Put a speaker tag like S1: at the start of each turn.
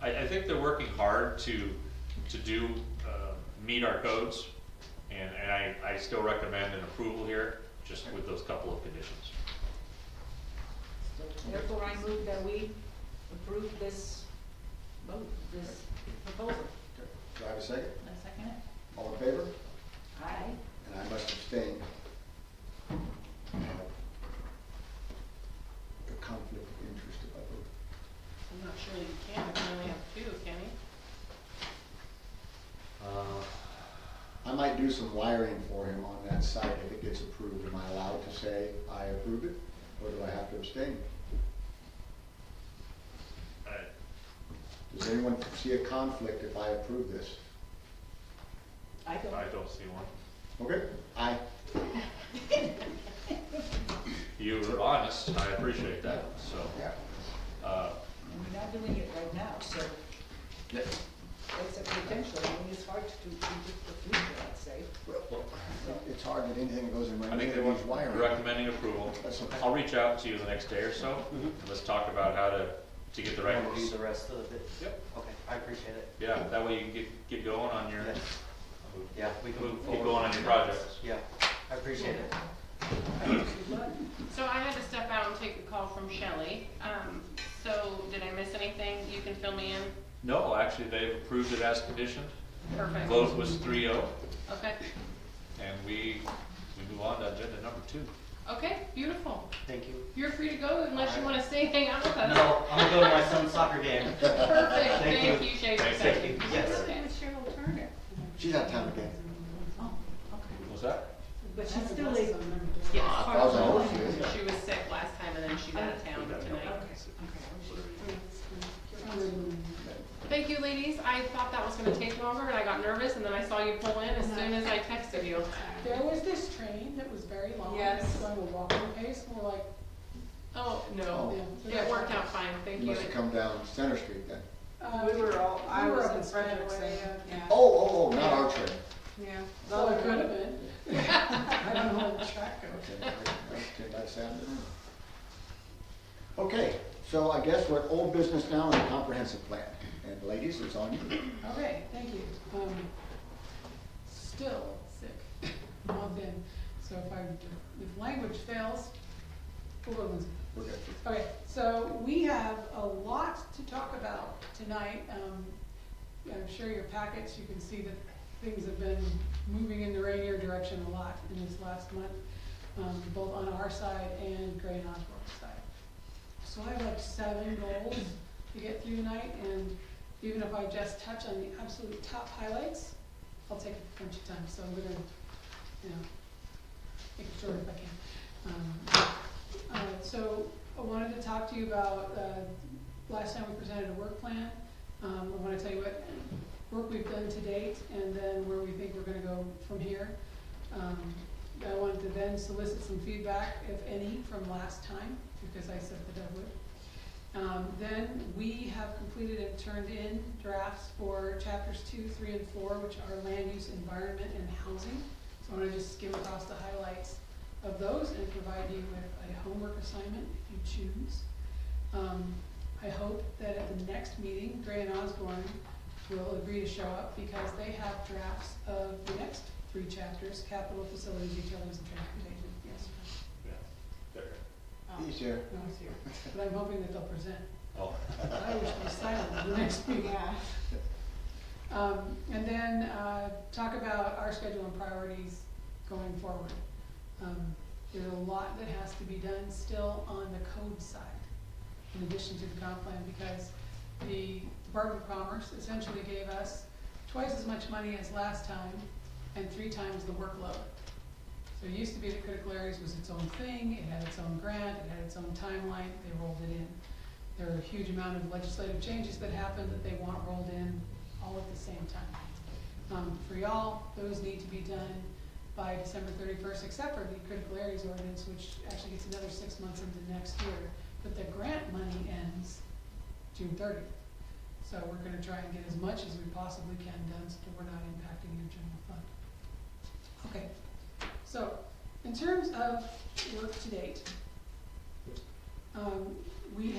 S1: I, I think they're working hard to, to do, uh, meet our codes. And, and I, I still recommend an approval here, just with those couple of conditions.
S2: Therefore, I move that we approve this vote, this proposal.
S3: Okay. Do I have a second?
S2: Can I second it?
S3: All in favor?
S2: Aye.
S3: And I must abstain. Uh, A conflict of interest if I vote.
S4: I'm not sure you can, you can only have two, can you?
S1: Uh,
S3: I might do some wiring for him on that site if it gets approved. Am I allowed to say I approve it, or do I have to abstain?
S1: I-
S3: Does anyone see a conflict if I approve this?
S2: I
S1: I
S2: don't,
S1: don't see one.
S3: Okay, I,
S1: You were honest, I appreciate that, so,
S3: yeah,
S1: uh,
S2: and we're not doing it right now, so
S3: yeah,
S2: it's a potential, I mean, it's hard to predict the future, I'd say.
S3: well, it's hard that anything goes in my,
S1: I think they
S3: neighbor's
S1: want
S3: wiring.
S1: recommending approval.
S3: That's okay.
S1: I'll reach out to you the next day or so, and let's talk about how to, to get the right.
S5: Wanna do the rest of it?
S1: Yep,
S5: Okay, I appreciate it.
S1: yeah, that way you can get, get going on your,
S5: Yeah. Yeah, we can move
S1: move-
S5: forward.
S1: get going on your projects.
S5: Yeah, I appreciate it.
S4: So I had to step out and take a call from Shelley. Um, so did I miss anything? You can fill me in.
S1: No, actually, they've approved it as conditioned.
S4: Perfect.
S1: Vote was 3-0,
S4: Okay,
S1: and we, we move on to agenda number two.
S4: okay, beautiful.
S5: Thank you.
S4: You're free to go unless you wanna stay, hang out with us.
S5: No, I'm gonna go to my son's soccer game.
S4: Perfect,
S5: Thank
S4: thank
S5: you.
S4: you, Shay.
S1: Thank you.
S5: Yes.
S2: Cheryl Turner.
S3: She's out of town again.
S1: What's that?
S2: But she's still a.
S4: Yes,
S3: Ah, I thought that was you.
S4: She was sick last time and then she's out of town tonight. Thank you, ladies. I thought that was gonna take longer and I got nervous and then I saw you pull in as soon as I texted you.
S6: There was this train that was very long,
S4: Yes.
S6: it was going to a walking pace, and we're like,
S4: Oh, no.
S3: Oh.
S6: yeah.
S4: It worked out fine, thank
S3: You
S4: you.
S3: must have come down Center Street then.
S6: uh,
S7: We were all, I
S6: we were
S7: was
S6: up
S7: in
S6: in Frederick's,
S7: Frederick's,
S6: yeah.
S7: yeah,
S3: Oh, oh, oh, not our train.
S7: yeah.
S6: So it could have been. I don't know where the track goes.
S3: Okay, great. That's ten by seven. Okay, so I guess we're at old business now and comprehensive plan. And ladies, it's on you.
S6: Okay, thank you. Um, still sick, month in, so if I, if language fails, Woodlands
S3: We're good.
S6: Okay, so we have a lot to talk about tonight. Um, I'm sure your packets, you can see that things have been moving in the Rainier direction a lot in this last month, um, both on our side and Gray and Osborne's side. So I have like seven goals to get through tonight, and even if I just touch on the absolute top highlights, I'll take a bunch of time, so I'm gonna, you know, make it short if I can. Um, uh, so I wanted to talk to you about, uh, last time we presented a work plan. Um, I wanna tell you what work we've done to date and then where we think we're gonna go from here. Um, I wanted to then solicit some feedback, if any, from last time, because I said that I would. Um, then we have completed and turned in drafts for chapters two, three, and four, which are land use, environment, and housing. So I'm gonna just skim across the highlights of those and provide you with a homework assignment if you choose. Um, I hope that at the next meeting, Gray and Osborne will agree to show up because they have drafts of the next three chapters, capital, facilities, utilities, and transportation. Yes.
S1: Yeah, there.
S3: He's here.
S6: No, it's here. But I'm hoping that they'll present.
S1: Oh,
S6: I wish we silent at the next meeting. Um, and then, uh, talk about our schedule and priorities going forward. Um, there's a lot that has to be done still on the code side, in addition to the comp plan, because the Department of Commerce essentially gave us twice as much money as last time and three times the workload. So it used to be that critical areas was its own thing, it had its own grant, it had its own timeline, they rolled it in. There are a huge amount of legislative changes that happened that they want rolled in all at the same time. Um, for y'all, those need to be done by December thirty-first, except for the critical areas ordinance, which actually gets another six months into next year. But the grant money ends June thirtieth. So we're gonna try and get as much as we possibly can done so that we're not impacting your general fund. Okay, so in terms of work to date, um, we